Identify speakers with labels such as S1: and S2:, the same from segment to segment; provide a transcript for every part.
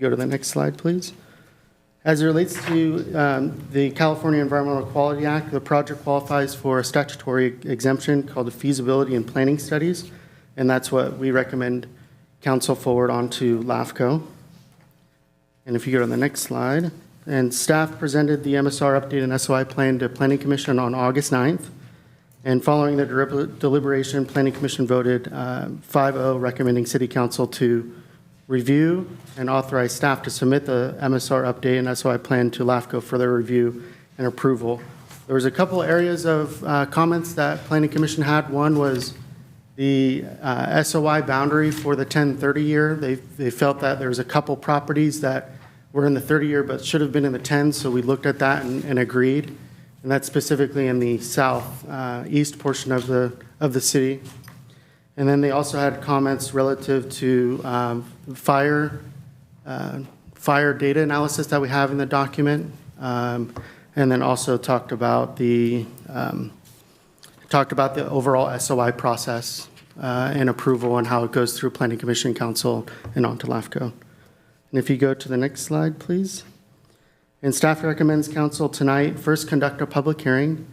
S1: Go to the next slide, please. As it relates to um, the California Environmental Quality Act, the project qualifies for a statutory exemption called the feasibility and planning studies, and that's what we recommend council forward onto LAFCO. And if you go to the next slide, and staff presented the MSR update and SOI plan to Planning Commission on August 9th. And following the deliber- deliberation, Planning Commission voted uh, 5-0 recommending City Council to review and authorize staff to submit the MSR update and SOI plan to LAFCO for their review and approval. There was a couple areas of uh, comments that Planning Commission had. One was the uh, SOI boundary for the 10-30 year. They, they felt that there was a couple properties that were in the 30-year but should have been in the 10, so we looked at that and, and agreed. And that's specifically in the south, uh, east portion of the, of the city. And then they also had comments relative to um, fire, uh, fire data analysis that we have in the document. Um, And then also talked about the, um, talked about the overall SOI process uh, and approval and how it goes through Planning Commission, Council, and on to LAFCO. And if you go to the next slide, please. And staff recommends council tonight first conduct a public hearing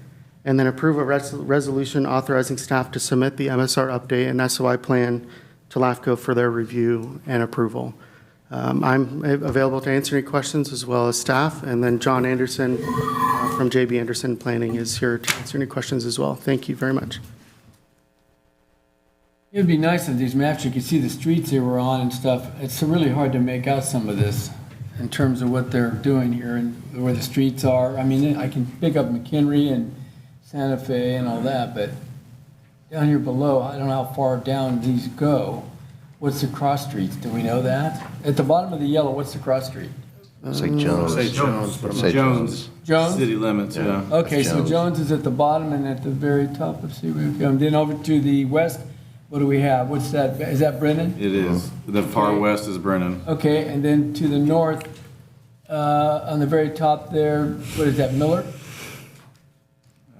S1: and then approve a res- resolution authorizing staff to submit the MSR update and SOI plan to LAFCO for their review and approval. Um, I'm a- available to answer any questions as well as staff. And then John Anderson uh, from JB Anderson Planning is here to answer any questions as well. Thank you very much.
S2: It'd be nice if these maps, you could see the streets they were on and stuff. It's really hard to make out some of this in terms of what they're doing here and where the streets are. I mean, I can pick up McHenry and Santa Fe and all that, but down here below, I don't know how far down these go. What's the cross streets? Do we know that? At the bottom of the yellow, what's the cross street?
S3: Say Jones.
S4: Say Jones, but I'm not-
S3: Say Jones.
S2: Jones?
S4: City limits, yeah.
S2: Okay,
S3: That's
S2: so
S3: Jones.
S2: Jones is at the bottom and at the very top of Seaway. Um, Then over to the west, what do we have? What's that? Is that Brennan?
S4: It is. The far
S2: Okay.
S4: west is Brennan.
S2: Okay, and then to the north, uh, on the very top there, what is that, Miller?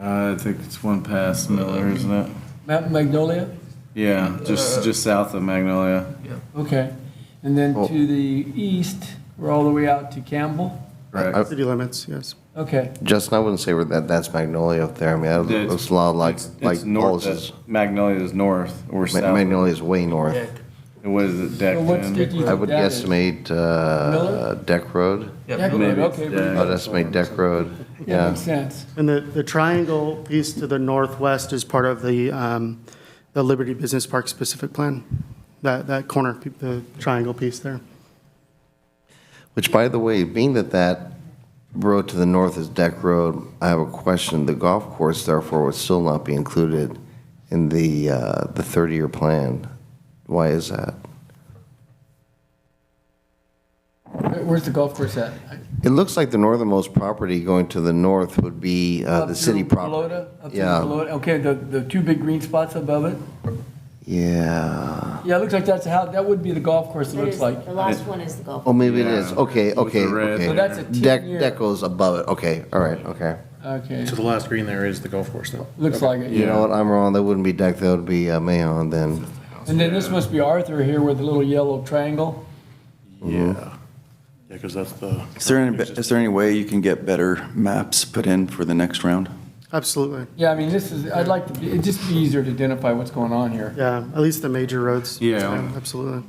S4: I think it's one past Miller, isn't it? Uh.
S2: Mount Magnolia?
S4: Yeah, just, just south of Magnolia.
S2: Okay. And then
S3: Oh.
S2: to the east, we're all the way out to Campbell?
S4: Correct.
S3: I-
S1: City limits, yes.
S2: Okay,
S3: Justin, I wouldn't say we're that that's Magnolia up there. I mean, that
S4: It's-
S3: looks a lot like
S4: it's-
S3: like
S4: it's north
S3: Paul's.
S4: of- Magnolia is north or
S3: Ma-
S4: south.
S3: Magnolia is way north.
S4: And What is it, decked
S2: So what's
S4: in?
S2: the-
S3: I would
S2: That is-
S3: estimate uh,
S2: Miller?
S3: Deck Road.
S2: Deck Road,
S4: maybe it's
S2: okay,
S4: Deck.
S3: I would estimate Deck Road.
S2: that
S3: Yeah.
S2: makes sense.
S1: And the, the triangle piece to the northwest is part of the, um, the Liberty Business Park specific plan. That, that corner, pe- the triangle piece there.
S3: Which, by the way, being that that road to the north is Deck Road, I have a question. The golf course, therefore, would still not be included in the uh, the 30-year plan. Why is that?
S2: Where- Where's the golf course at?
S3: It looks like the northernmost property going to the north would be uh,
S2: Up
S3: the
S2: to
S3: city property.
S2: Pelota? Up to
S3: Yeah.
S2: Pelota? Okay, the, the two big green spots above it?
S3: Yeah.
S2: Yeah, it looks like that's how, that would be the golf course, it
S5: That
S2: looks
S5: is-
S2: like.
S5: The last one is the golf.
S3: Oh, maybe it is.
S4: Yeah.
S3: Okay,
S4: With the
S3: okay,
S4: red
S3: okay.
S2: So that's a
S3: Deck,
S2: 10-year.
S3: deck goes above it. Okay, all right, okay.
S2: Okay,
S6: So the last green there is the golf course now.
S2: looks like it,
S3: You
S2: yeah.
S3: know what? I'm wrong. That wouldn't be deck. That would be uh, Mahon then.
S2: And then this must be Arthur here with the little yellow triangle.
S6: Yeah. Yeah, because that's the.
S7: Is there any, is there any way you can get better maps put in for the next round?
S1: Absolutely.
S2: Yeah, I mean, this is, I'd like to, be- it'd just be easier to identify what's going on here.
S1: Yeah, at least the major roads.
S4: Yeah.
S1: Absolutely.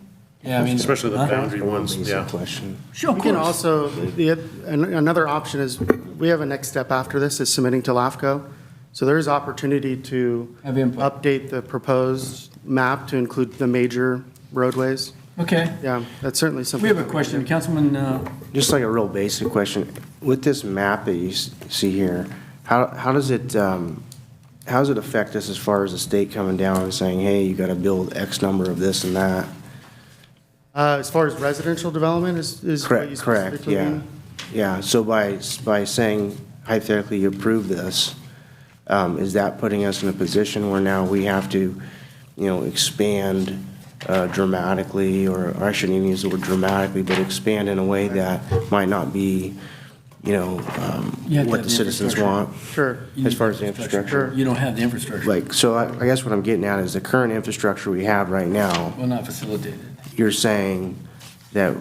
S2: Yeah, I mean.
S6: Especially the
S2: Huh?
S6: boundary ones, yeah.
S2: Sure, of
S1: We can
S2: course.
S1: also, the, an- another option is, we have a next step after this, is submitting to LAFCO. So there is opportunity to
S2: Have input.
S1: update the proposed map to include the major roadways.
S2: Okay.
S1: Yeah, that's certainly
S2: We
S1: something.
S2: have a question, Councilman, uh,
S8: Just like a real basic question, with this map that you s- see here, how, how does it, um, how does it affect us as far as the state coming down and saying, hey, you gotta build X number of this and that?
S1: Uh, as far as residential development is, is. what you
S8: Correct, correct,
S1: specifically
S8: yeah.
S1: mean?
S8: Yeah, so by, s- by saying hypothetically you approve this, um, is that putting us in a position where now we have to, you know, expand uh, dramatically, or or I shouldn't even use the word dramatically, but expand in a way that might not be, you know, um,
S2: You have to have
S8: what the
S2: the
S8: citizens
S2: infrastructure.
S8: want?
S1: Sure.
S8: As far as the infrastructure?
S2: you don't have the infrastructure.
S8: Like, so I I guess what I'm getting at is the current infrastructure we have right now,
S2: Well, not facilitated.
S8: you're saying that